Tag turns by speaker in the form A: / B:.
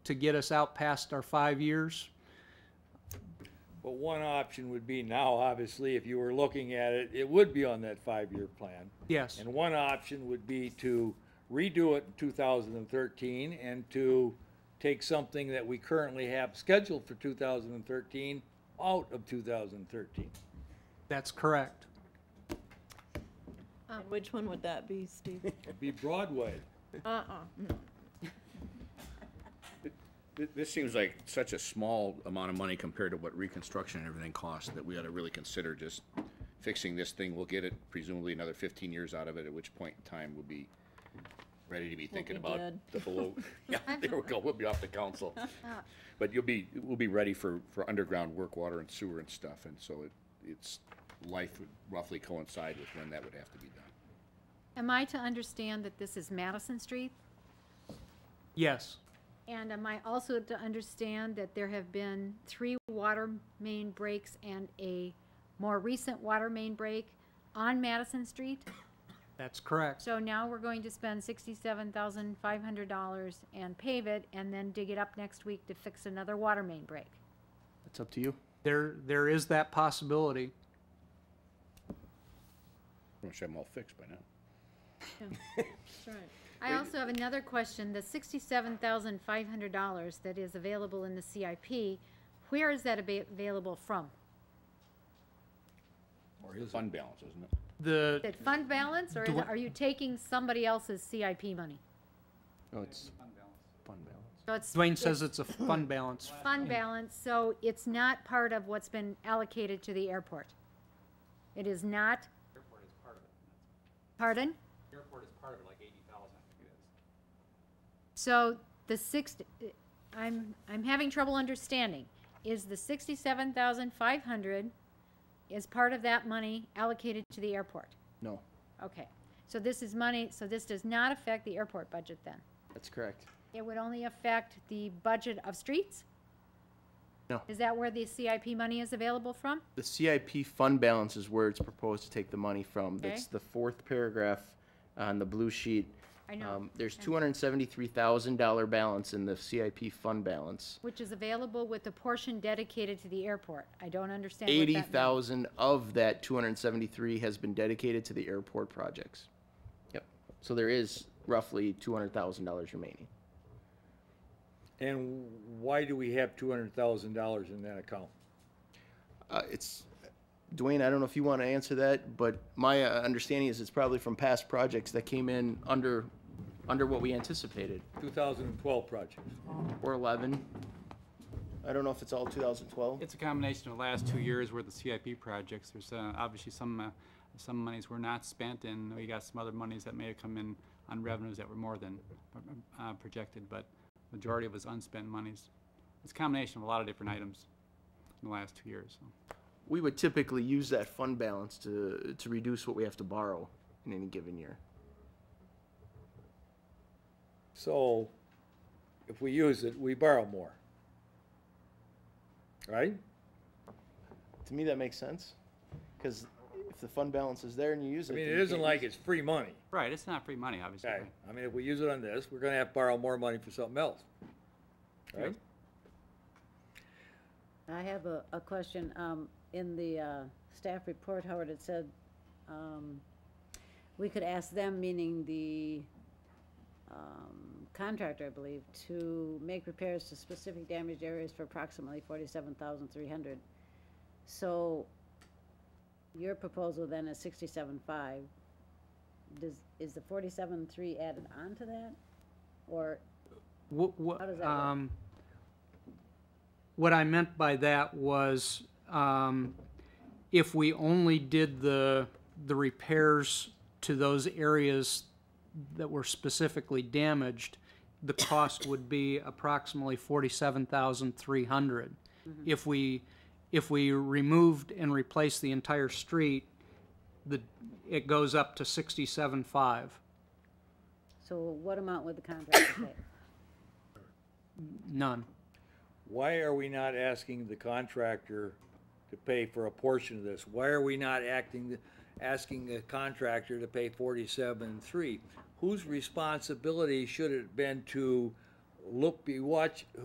A: to get us out past our five years.
B: But one option would be now, obviously, if you were looking at it, it would be on that five-year plan.
A: Yes,
B: And one option would be to redo it in two thousand and thirteen and to take something that we currently have scheduled for two thousand and thirteen out of two thousand and thirteen.
A: that's correct.
C: Um,
D: And Which one would that be, Steve?
B: It'd be Broadway.
D: Uh-uh.
E: Th- This seems like such a small amount of money compared to what reconstruction and everything costs that we ought to really consider just fixing this thing. We'll get it presumably another fifteen years out of it, at which point in time we'll be ready to be thinking
D: be
E: about
D: dead.
E: the below. Yeah, there we go. We'll be off the council. But you'll be, we'll be ready for, for underground work, water and sewer and stuff. And so it, it's, life would roughly coincide with when that would have to be done.
C: Am I to understand that this is Madison Street?
A: Yes,
C: And am I also to understand that there have been three water main breaks and a more recent water main break on Madison Street?
A: that's correct.
C: So now we're going to spend sixty-seven thousand five hundred dollars and pave it and then dig it up next week to fix another water main break.
F: It's up to you.
A: There, there is that possibility.
E: Which I'm all fixed by now.
D: That's right.
C: I also have another question. The sixty-seven thousand five hundred dollars that is available in the CIP, where is that ava- available from?
E: Or his fund balance, isn't it?
A: The,
C: That fund balance, or is-
A: Dwar-
C: are you taking somebody else's CIP money?
F: No, it's fund balance.
C: So it's
A: Dwayne says it's a fund balance.
C: fund balance, so it's not part of what's been allocated to the airport. It is not? Airport is part of it. Pardon? So the six, I'm, I'm having trouble understanding. Is the sixty-seven thousand five hundred, is part of that money allocated to the airport?
F: No,
C: Okay, so this is money, so this does not affect the airport budget then?
F: that's correct.
C: It would only affect the budget of streets?
F: No.
C: Is that where the CIP money is available from?
F: The CIP fund balance is where it's proposed to take the money from.
C: Okay.
F: That's the fourth paragraph on the blue sheet.
C: I know,
F: Um, There's two hundred and seventy-three thousand dollar balance in the CIP fund balance.
C: which is available with the portion dedicated to the airport. I don't understand what that
F: Eighty
C: means.
F: thousand of that two hundred and seventy-three has been dedicated to the airport projects. Yep. So there is roughly two hundred thousand dollars remaining.
B: And why do we have two hundred thousand dollars in that account?
F: Uh, it's, Dwayne, I don't know if you want to answer that, but my uh, understanding is it's probably from past projects that came in under, under what we anticipated,
B: Two thousand and twelve projects.
F: or 11. I don't know if it's all 2012.
G: It's a combination of the last two years worth of CIP projects. There's uh, obviously some, uh, some monies were not spent, and we got some other monies that may have come in on revenues that were more than uh, projected, but majority of it was unspent monies. It's a combination of a lot of different items in the last two years. so.
F: We would typically use that fund balance to, to reduce what we have to borrow in any given year.
B: So if we use it, we borrow more. Right?
F: To me, that makes sense, because if the fund balance is there and you use
B: I
F: it.
B: mean,
F: then
B: it
F: you
B: isn't
F: can't
B: like
F: use
B: it's free money.
G: Right, it's not free money, obviously.
B: Okay, I mean, if we use it on this, we're gonna have to borrow more money for something else, right?
H: I have a, a question. Um, in the, uh, staff report, Howard, it said, um, we could ask them, meaning the, um, contractor, I believe, to make repairs to specific damaged areas for approximately forty-seven thousand three hundred. So your proposal then is sixty-seven five. Does, is the forty-seven three added on to that? Or
A: What, what,
H: How does that work?
A: um, what I meant by that was, um, if we only did the, the repairs to those areas that were specifically damaged, the cost would be approximately forty-seven thousand three hundred.
H: Mm-hmm.
A: If we, if we removed and replaced the entire street, the, it goes up to sixty-seven five.
H: So what amount would the contractor pay?
A: None.
B: Why are we not asking the contractor to pay for a portion of this? Why are we not acting, asking the contractor to pay forty-seven and three? Whose responsibility should it have been to look, be watch,